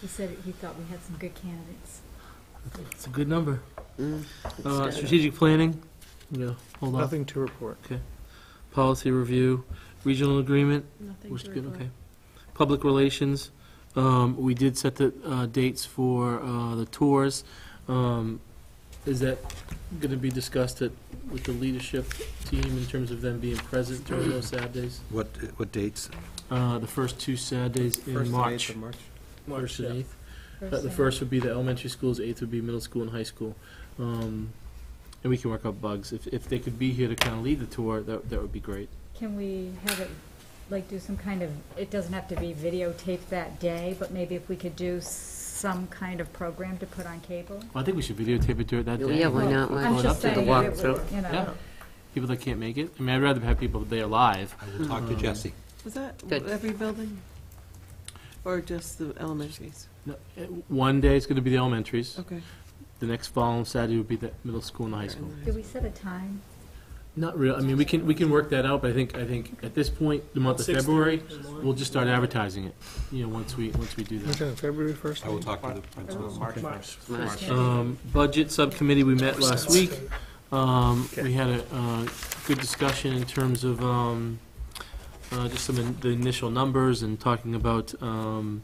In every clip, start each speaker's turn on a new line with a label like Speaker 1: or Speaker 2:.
Speaker 1: He said he thought we had some good candidates.
Speaker 2: It's a good number.
Speaker 3: Mm.
Speaker 2: Uh, strategic planning, yeah, hold on.
Speaker 4: Nothing to report.
Speaker 2: Policy review, regional agreement,
Speaker 1: Nothing
Speaker 2: which is good, okay. Public relations, um, we did set the, uh, dates for, uh, the tours. Um, is that gonna be discussed at, with the leadership team in terms of them being present during those Saturdays?
Speaker 3: What, what dates?
Speaker 2: Uh, the first two Saturdays in March. First and eighth. Uh, The first would be the elementary schools, eighth would be middle school and high school. Um, And we can work out bugs. If, if they could be here to kind of lead the tour, that, that would be great.
Speaker 1: Can we have it, like, do some kind of, it doesn't have to be videotaped that day, but maybe if we could do some kind of program to put on cable?
Speaker 2: Well, I think we should videotape it during that day.
Speaker 3: Yeah, why
Speaker 1: Well,
Speaker 3: not? Why
Speaker 1: I'm
Speaker 2: not?
Speaker 1: just
Speaker 2: Up to
Speaker 1: saying,
Speaker 2: the
Speaker 1: that it
Speaker 3: walkthrough.
Speaker 1: would, you
Speaker 2: Yeah.
Speaker 1: know,
Speaker 2: People that can't make it. I mean, I'd rather have people there live.
Speaker 3: I will talk to
Speaker 2: Um,
Speaker 3: Jesse.
Speaker 5: Was that
Speaker 3: Good.
Speaker 5: every building? Or just the elementaries?
Speaker 2: No, eh, One day it's going to be the elementaries.
Speaker 5: Okay.
Speaker 2: The next following Saturday would be the middle school and the high
Speaker 5: They're in
Speaker 2: school.
Speaker 5: the high
Speaker 1: did we set a time?
Speaker 2: Not real, I mean, we can, we can work that out, but I think, I think at this point, the month of February, we'll just start advertising it, you know, once we, once we do that.
Speaker 4: Which on February 1st?
Speaker 3: I will talk to the principal.
Speaker 4: March.
Speaker 3: March.
Speaker 1: Yeah.
Speaker 2: Um, Budget Subcommittee, we met last week. Um, We had a uh, good discussion in terms of um, uh, just some of the initial numbers and talking about, um,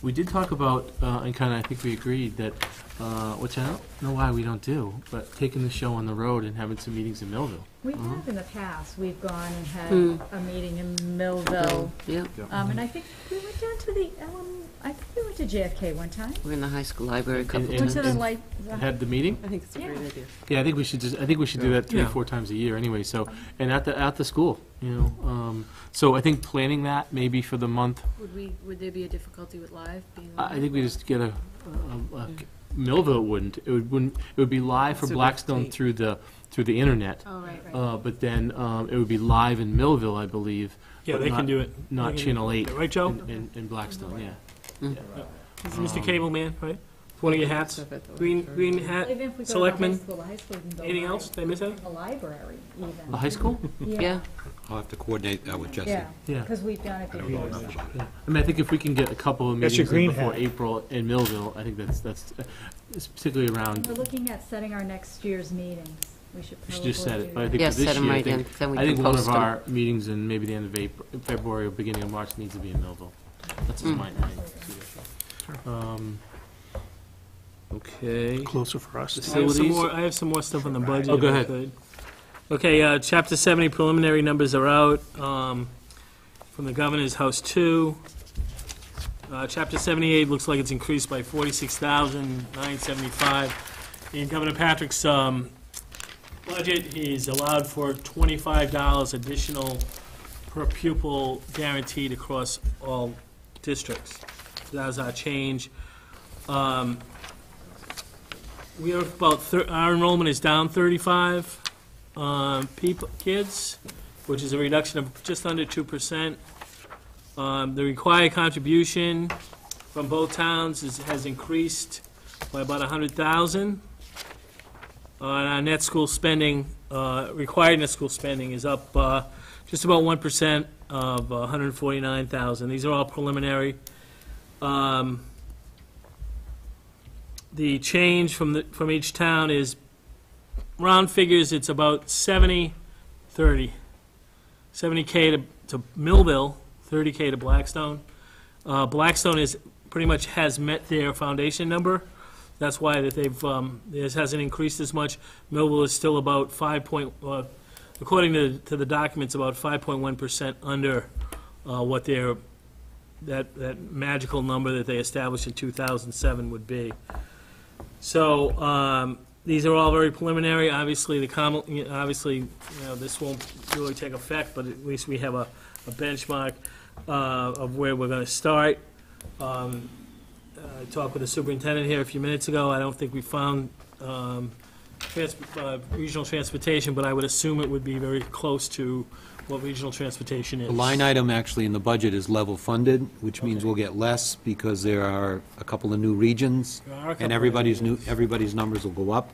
Speaker 2: we did talk about, uh, and kind of, I think we agreed that, uh, which I don't know why we don't do, but taking the show on the road and having some meetings in Millville.
Speaker 1: We
Speaker 2: Mhm.
Speaker 1: have in the past, we've gone and had
Speaker 3: Hmm.
Speaker 1: a meeting in Millville,
Speaker 3: Yeah,
Speaker 1: um, and I think we went down to the, um, I think we went to JFK one time.
Speaker 3: we're in the high school library a couple
Speaker 2: And-
Speaker 1: Went
Speaker 3: times.
Speaker 1: to the light, the-
Speaker 2: Had the meeting?
Speaker 5: school. I think it's a great idea.
Speaker 2: Yeah, I think we should just, I think we should do
Speaker 4: Yeah.
Speaker 2: that three, or
Speaker 4: Yeah.
Speaker 2: four times a year anyway, so, and at the, at the school, you know. um, So I think planning that maybe for the month,
Speaker 6: Would we, would there be a difficulty with live being?
Speaker 2: I I think we just get a, a- a-
Speaker 5: Yeah.
Speaker 2: Millville wouldn't, it would, wouldn't, it would be live for
Speaker 5: So
Speaker 2: Blackstone
Speaker 5: that's-
Speaker 2: through the, through the internet.
Speaker 6: Oh, right, right.
Speaker 2: Uh, But then um, it would be live in Millville, I believe,
Speaker 7: Yeah,
Speaker 2: But
Speaker 7: they
Speaker 2: not-
Speaker 7: can do it.
Speaker 2: not
Speaker 7: They can-
Speaker 2: Channel 8
Speaker 7: Right, Joe?
Speaker 2: in- in, in Blackstone, yeah. Um,
Speaker 7: Mr. Cable Man, right? One of your hats,
Speaker 5: Stuff at the
Speaker 7: green,
Speaker 5: library.
Speaker 7: green hat.
Speaker 1: Even if we go to the high
Speaker 7: Selectmen.
Speaker 1: school, the high school can go
Speaker 7: Anything
Speaker 1: live.
Speaker 7: else? Did I miss out?
Speaker 1: The library, even.
Speaker 2: The high school?
Speaker 3: Yeah, I'll have to coordinate that with Jesse.
Speaker 1: Yeah,
Speaker 2: Yeah.
Speaker 1: because we've done it
Speaker 3: I don't know
Speaker 1: before.
Speaker 3: enough about it.
Speaker 2: Yeah. I mean, I think if we can get a couple of
Speaker 4: That's your
Speaker 2: meetings in
Speaker 4: green
Speaker 2: before
Speaker 4: hat.
Speaker 2: April in Millville, I think that's, that's uh, it's particularly around,
Speaker 1: We're looking at setting our next year's meetings. We should
Speaker 2: we
Speaker 1: probably
Speaker 2: should just set it,
Speaker 1: do
Speaker 2: but I
Speaker 1: that.
Speaker 2: think
Speaker 3: Yeah,
Speaker 2: for
Speaker 3: set
Speaker 2: this
Speaker 3: them
Speaker 2: year, I
Speaker 3: right in,
Speaker 2: think,
Speaker 3: then we
Speaker 2: I
Speaker 3: can
Speaker 2: think one
Speaker 3: post
Speaker 2: of
Speaker 3: 'em.
Speaker 2: our meetings in maybe the end of April, February or beginning of March needs to be in Millville. That's just
Speaker 3: Mm.
Speaker 2: my, my suggestion. Um, Okay.
Speaker 4: Closer for us.
Speaker 7: I have some
Speaker 2: Facilities.
Speaker 7: more, I have some more stuff on the budget.
Speaker 2: Oh, go
Speaker 7: if I
Speaker 2: ahead.
Speaker 7: could. Okay, uh, chapter seventy preliminary numbers are out, um, from the governor's house two. Uh, chapter seventy-eight looks like it's increased by forty-six thousand nine seventy-five. In Governor Patrick's, um, budget, he's allowed for twenty-five dollars additional per pupil guaranteed across all districts. That's our change. Um, we are about, thir- our enrollment is down 35 um, people, kids, which is a reduction of just under 2%. Um, The required contribution from both towns is- has increased by about 100,000. Uh, And our net school spending, uh, required net school spending is up uh, just about 1% of uh, 149,000. These are all preliminary. Um, the change from the, from each town is, round figures, it's about 70, 30. 70K to, to Millville, 30K to Blackstone. Uh, Blackstone is, pretty much has met their foundation number. That's why that they've, um, this hasn't increased as much. Millville is still about 5 point, uh, according to, to the documents, about 5.1% under, uh, what their, that, that magical number that they established in 2007 would be. So, um, these are all very preliminary, obviously, the common, you know, obviously, you know, this won't really take effect, but at least we have a, a benchmark, uh, of where we're gonna start. Um, I talked with the superintendent here a few minutes ago, I don't think we found, um, trans, uh, regional transportation, but I would assume it would be very close to what regional transportation is.
Speaker 3: The line item actually in the budget is level funded, which means we'll get less because there are a couple of new regions,
Speaker 7: There are a couple
Speaker 3: and
Speaker 7: of
Speaker 3: everybody's new,
Speaker 7: regions.
Speaker 3: everybody's numbers will go up.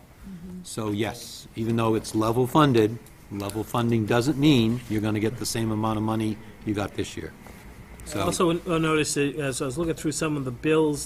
Speaker 3: So yes, even though it's level funded, level funding doesn't mean you're going to get the same amount of money you got this year. So.
Speaker 7: Also, I noticed, that as I was looking through some of the bills